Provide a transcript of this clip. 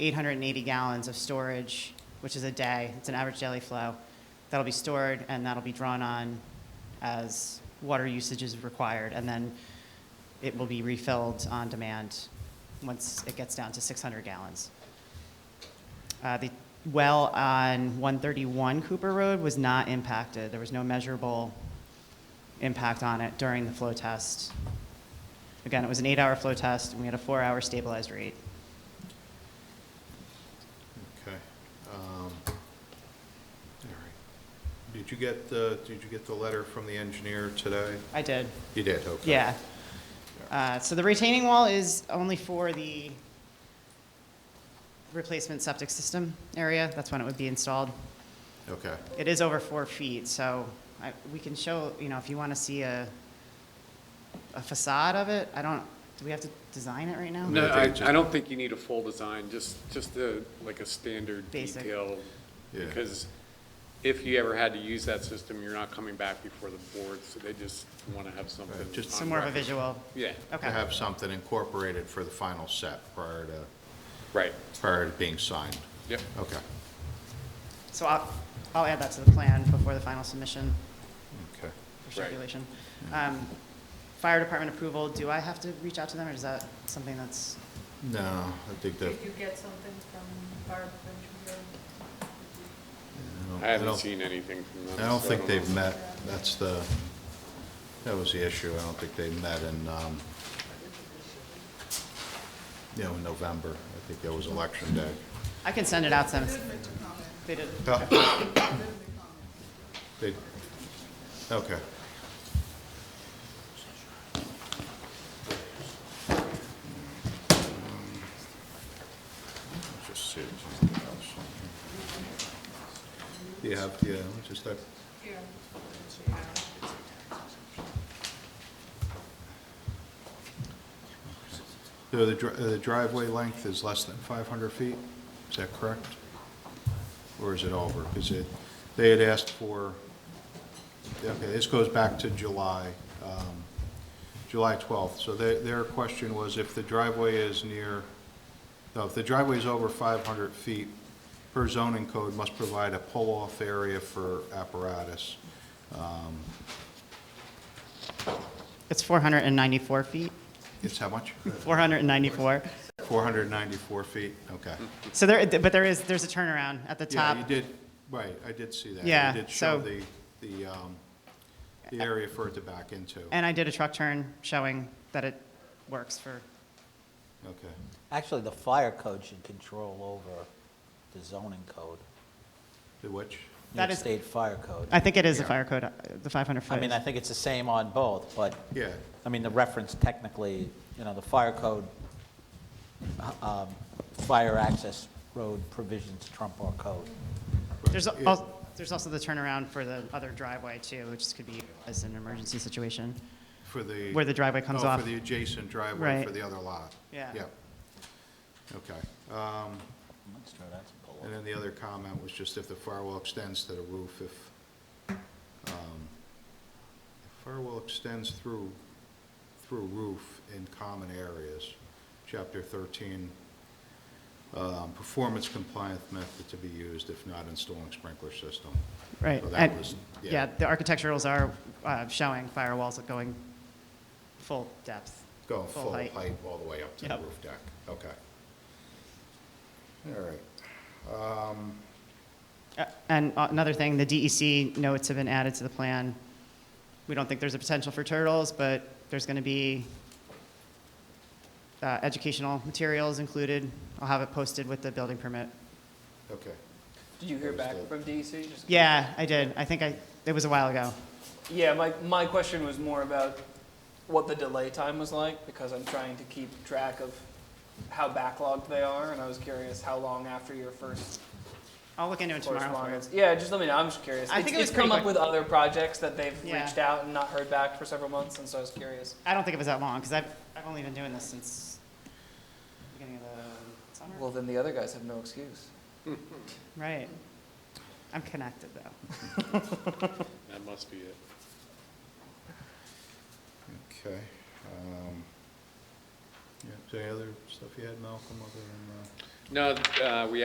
880 gallons of storage, which is a day. It's an average daily flow. That'll be stored and that'll be drawn on as water usage is required. And then it will be refilled on demand once it gets down to 600 gallons. Uh, The well on 131 Cooper Road was not impacted. There was no measurable impact on it during the flow test. Again, it was an eight-hour flow test, and we had a four-hour stabilized rate. Okay. um, All right. Did you get the, did you get the letter from the engineer today? I did, You did, okay. yeah. Uh, So the retaining wall is only for the replacement septic system area. That's when it would be installed. Okay, It is over four feet, so I, we can show, you know, if you want to see a, a facade of it, I don't, do we have to design it right now? No. No, I I, think I don't think you need a full design, just, just a, like a standard Basic. detail. Yeah. Because if you ever had to use that system, you're not coming back before the board, so they just want to have something. Right, just- on So more of a record. visual, Yeah, to okay, have something incorporated for the final set prior to, right, prior to being signed. yep. Okay, so I'll, I'll add that to the plan before the final submission okay. for Right. circulation. Um, Fire department approval, do I have to reach out to them, or is that something that's, No, I think that, Did you get something from Barb Benjamin? don't- I don't- haven't seen anything from them. I don't so think they've know. met, that's the, that was the issue, I don't think they met in, um, you know, in November, I think that was election day. I can send it out to them. They did, Oh. They- Okay, just see if there's anything else. Do you have, yeah, let me just, look. Here. So the dri- the driveway length is less than 500 feet, is that correct? Or is it over? Because it, they had asked for, okay, this goes back to July, um, July 12th. So their, their question was if the driveway is near, no, if the driveway is over 500 feet, per zoning code must provide a pull-off area for apparatus. it's 494 feet, It's how much? 494. 494 feet, okay. So there, but there is, there's a turnaround at the top. Yeah, you did, right, I did see that. Yeah, You did show so- the, the, um, the area for it to back into. And I did a truck turn showing that it works for, Okay, Actually, the fire code should control over the zoning code, the which, New That York is- State Fire Code. I think it is the Yeah. fire code, uh, the 500 foot. I mean, I think it's the same on both, but, yeah, I mean, the reference technically, you know, the fire code, uh, um, fire access road provisions trump our code. There's Yeah. also, there's also the turnaround for the other driveway too, which could be as an emergency situation. for the. Where the driveway comes oh, off. for the adjacent driveway Right. for the other lot. Yeah. Yep. Okay, um, Let's try that to pull and up. then the other comment was just if the firewall extends to the roof, if, um, if firewall extends through, through roof in common areas, chapter thirteen um, performance compliance method to be used if not installing sprinkler system. Right. So and- that was, Yeah, yeah, the architecturals are uh, showing firewalls going full depth. going full height. height all the way up to the Yep. roof deck, okay. All right. Uh, And uh, another thing, the DEC notes have been added to the plan. We don't think there's a potential for turtles, but there's going to be uh, educational materials included. I'll have it posted with the building permit. Okay, Did you hear There's back the- from DC? Just- Yeah, I did. I think I, it was a while ago. Yeah, my, my question was more about what the delay time was like, because I'm trying to keep track of how backlogged they are, and I was curious how long after your first I'll look into it tomorrow. for correspondence. you. Yeah, just let me know, I'm just curious. I think It's- it was It's come pretty up quick. with other projects that they've Yeah. reached out and not heard back for several months, and so I was curious. I don't think it was that long, because I've, I've only been doing this since beginning of the summer. Well, then the other guys have no excuse. Right. I'm connected, though. That must be it. okay. um, Yeah, is there any other stuff you had, Malcolm, other than, uh? No, uh, we